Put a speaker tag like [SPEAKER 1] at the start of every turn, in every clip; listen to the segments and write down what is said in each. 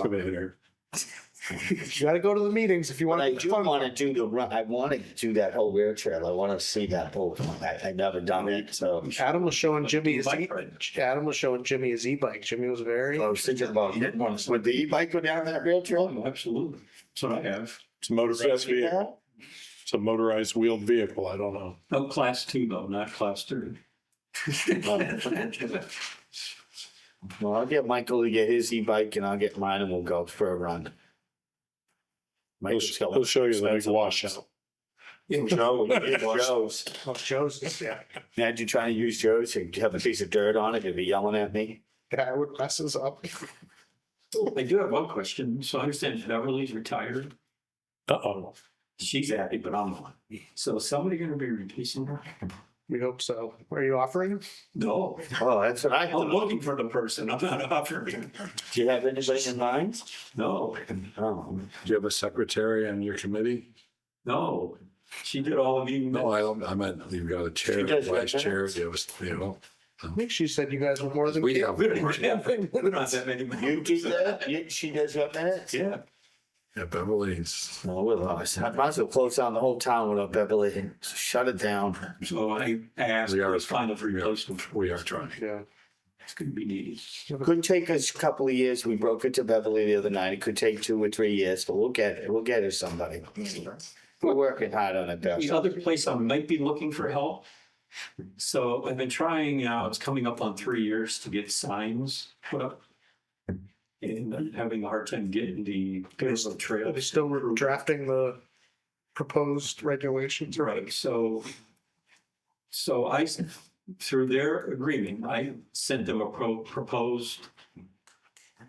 [SPEAKER 1] excavator.
[SPEAKER 2] You gotta go to the meetings if you
[SPEAKER 3] But
[SPEAKER 2] want.
[SPEAKER 3] I do want to do the run. I want to do that whole rail trail. I want to see that whole. I, I never done it, so
[SPEAKER 2] Adam was showing Jimmy his, e-
[SPEAKER 4] Bike ride.
[SPEAKER 2] Adam was showing Jimmy his e-bike. Jimmy was very,
[SPEAKER 3] I was thinking about
[SPEAKER 4] You did one.
[SPEAKER 3] would the e-bike go down that rail trail?
[SPEAKER 4] Oh, absolutely. That's what I have.
[SPEAKER 1] It's a motorized vehicle. It's a motorized wheeled vehicle. I don't know.
[SPEAKER 4] Oh, class two though, not class three.
[SPEAKER 3] Well, I'll get Michael to get his e-bike and I'll get mine and we'll go for a run.
[SPEAKER 1] He'll,
[SPEAKER 3] Michael's got one.
[SPEAKER 1] he'll show you the big washout.
[SPEAKER 3] Joe, yeah, Joe's.
[SPEAKER 2] oh, Joe's, yeah,
[SPEAKER 3] Imagine trying to use Joe's and have a piece of dirt on it and be yelling at me.
[SPEAKER 2] yeah, I would mess us up.
[SPEAKER 4] I do have one question. So I understand Beverly's retired.
[SPEAKER 1] Uh-oh.
[SPEAKER 4] She's happy, but I'm not. So is somebody gonna be replacing her?
[SPEAKER 2] We hope so. Are you offering him?
[SPEAKER 4] No,
[SPEAKER 3] Oh, that's what I
[SPEAKER 4] I'm
[SPEAKER 3] thought.
[SPEAKER 4] looking for the person. I'm not offering.
[SPEAKER 3] Do you have anybody in mind?
[SPEAKER 4] No,
[SPEAKER 3] Oh,
[SPEAKER 5] Do you have a secretary on your committee?
[SPEAKER 4] no. She did all of you.
[SPEAKER 5] No, I don't, I meant you've got a
[SPEAKER 3] She
[SPEAKER 5] chair,
[SPEAKER 3] does
[SPEAKER 5] vice
[SPEAKER 3] have
[SPEAKER 5] chair,
[SPEAKER 3] minutes.
[SPEAKER 5] you have, a- you know.
[SPEAKER 2] I think she said you guys were more than.
[SPEAKER 5] We have,
[SPEAKER 4] We don't have, we don't have that many.
[SPEAKER 3] you do that? You, she does what minutes?
[SPEAKER 4] Yeah.
[SPEAKER 5] yeah, Beverly's,
[SPEAKER 3] No, we're lost. I might as well close down the whole town without Beverly. Shut it down.
[SPEAKER 4] So I I asked,
[SPEAKER 5] We are-
[SPEAKER 4] let's find a replacement.
[SPEAKER 5] we are trying.
[SPEAKER 2] Yeah.
[SPEAKER 4] It's gonna be needed.
[SPEAKER 3] Could take us a couple of years. We broke it to Beverly the other night. It could take two or three years, but we'll get it. We'll get her somebody. We're working hard on it,
[SPEAKER 4] The
[SPEAKER 3] Bev.
[SPEAKER 4] other place I might be looking for help. So I've been trying now, it's coming up on three years to get signs put up. And I'm having a hard time getting the
[SPEAKER 2] Yes.
[SPEAKER 4] the
[SPEAKER 2] Are
[SPEAKER 4] trail.
[SPEAKER 2] they still re- drafting the proposed regulations? or-
[SPEAKER 4] Right, so. So I, s- through their agreement, I sent them a pro- proposed.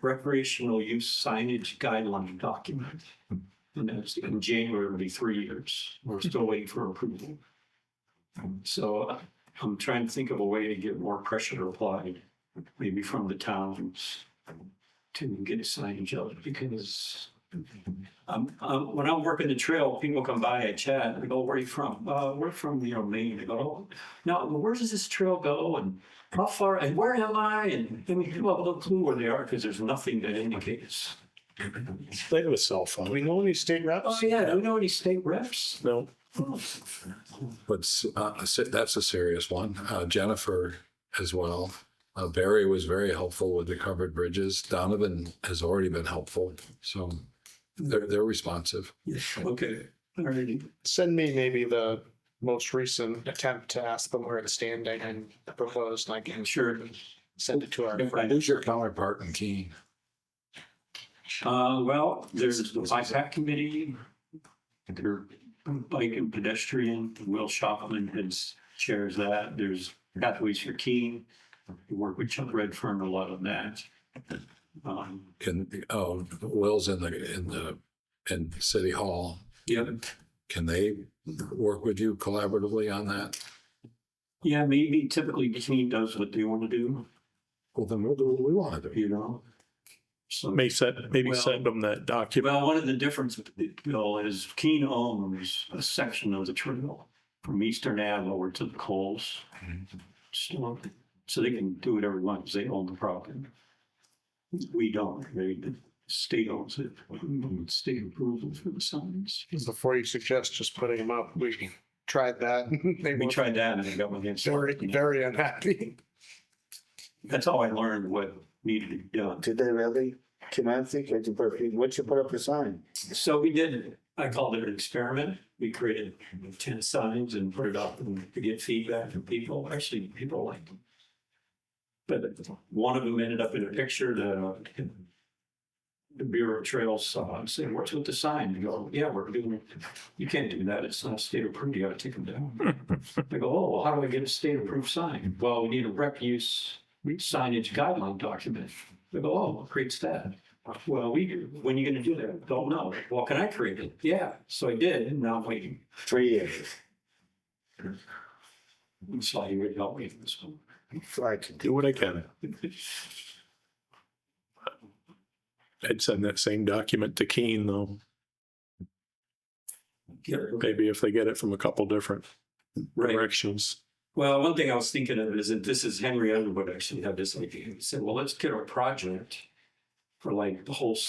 [SPEAKER 4] Recreational use signage guideline document. And that's in January, it'll be three years. We're still waiting for approval. So I'm trying to think of a way to get more pressure applied, maybe from the towns. To get signage out because um, um, when I'm working the trail, people come by, I chat, I go, where are you from? Uh, we're from, you know, Maine. I go, oh, now, where does this trail go and how far and where am I? And I mean, people have no clue where they are because there's nothing that indicates.
[SPEAKER 1] They have a cell
[SPEAKER 2] Do
[SPEAKER 1] phone.
[SPEAKER 2] we know any state
[SPEAKER 4] Oh,
[SPEAKER 2] reps?
[SPEAKER 4] yeah, do we know any state reps?
[SPEAKER 1] No.
[SPEAKER 4] Oh,
[SPEAKER 5] But s- uh, I said that's a serious one. Uh, Jennifer as well. Uh, Barry was very helpful with the covered bridges. Donovan has already been helpful, so they're, they're responsive.
[SPEAKER 4] yes, Okay, all right.
[SPEAKER 2] Send me maybe the most recent attempt to ask them where it's standing and the proposed, and I can
[SPEAKER 4] Sure.
[SPEAKER 2] send it to our.
[SPEAKER 5] Who's your counterpart in Keene?
[SPEAKER 4] Uh, well, there's the BIPAC committee. There, bike and pedestrian, Will Shopman has chairs that. There's Pathways for Keene. We work with Chuck Redfern a lot on that. Um,
[SPEAKER 5] In, oh, Will's in the, in the, in City Hall.
[SPEAKER 4] yeah,
[SPEAKER 5] Can they work with you collaboratively on that?
[SPEAKER 4] yeah, maybe typically Keene does what they want to do,
[SPEAKER 5] Well, then we'll do what we want to do.
[SPEAKER 4] you know? So.
[SPEAKER 1] May send, maybe
[SPEAKER 4] Well-
[SPEAKER 1] send them that document.
[SPEAKER 4] Well, one of the difference, Bill, is Keene owns a section of the trail from Eastern Ave over to the Coles. So so they can do whatever they want, 'cause they own the property. We don't, they, the state owns it, state approval for the signs.
[SPEAKER 2] Before you suggest just putting them up, we tried that. They
[SPEAKER 4] We
[SPEAKER 2] were
[SPEAKER 4] tried that and it got my hands.
[SPEAKER 2] very, very unhappy.
[SPEAKER 4] That's how I learned what needed to be done.
[SPEAKER 3] Did they really? Can I think? I did perfect- What'd you put up a sign?
[SPEAKER 4] So we did, I called it an experiment. We created ten signs and put it up and to get feedback from people. Actually, people liked them. But one of them ended up in a picture that the Bureau of Trails saw and said, what's with the sign? You go, yeah, we're doing, it. you can't do that. It's not state approved. You gotta take them down. They go, oh, well, how do I get a state approved sign? Well, we need a rep use signage guideline document. They go, oh, what creates that? Well, we, when are you gonna do that? Don't know. Well, can I create it? Yeah, so I did, and now I'm waiting.
[SPEAKER 3] Three years.
[SPEAKER 4] So you would help me with this one.
[SPEAKER 3] Like,
[SPEAKER 1] Do what I can. I'd send that same document to Keene though.
[SPEAKER 4] Yeah, okay.
[SPEAKER 1] Maybe if they get it from a couple different
[SPEAKER 4] Right.
[SPEAKER 1] directions.
[SPEAKER 4] Well, one thing I was thinking of is that this is Henry Underwood actually had this idea. He said, well, let's get a project for like the whole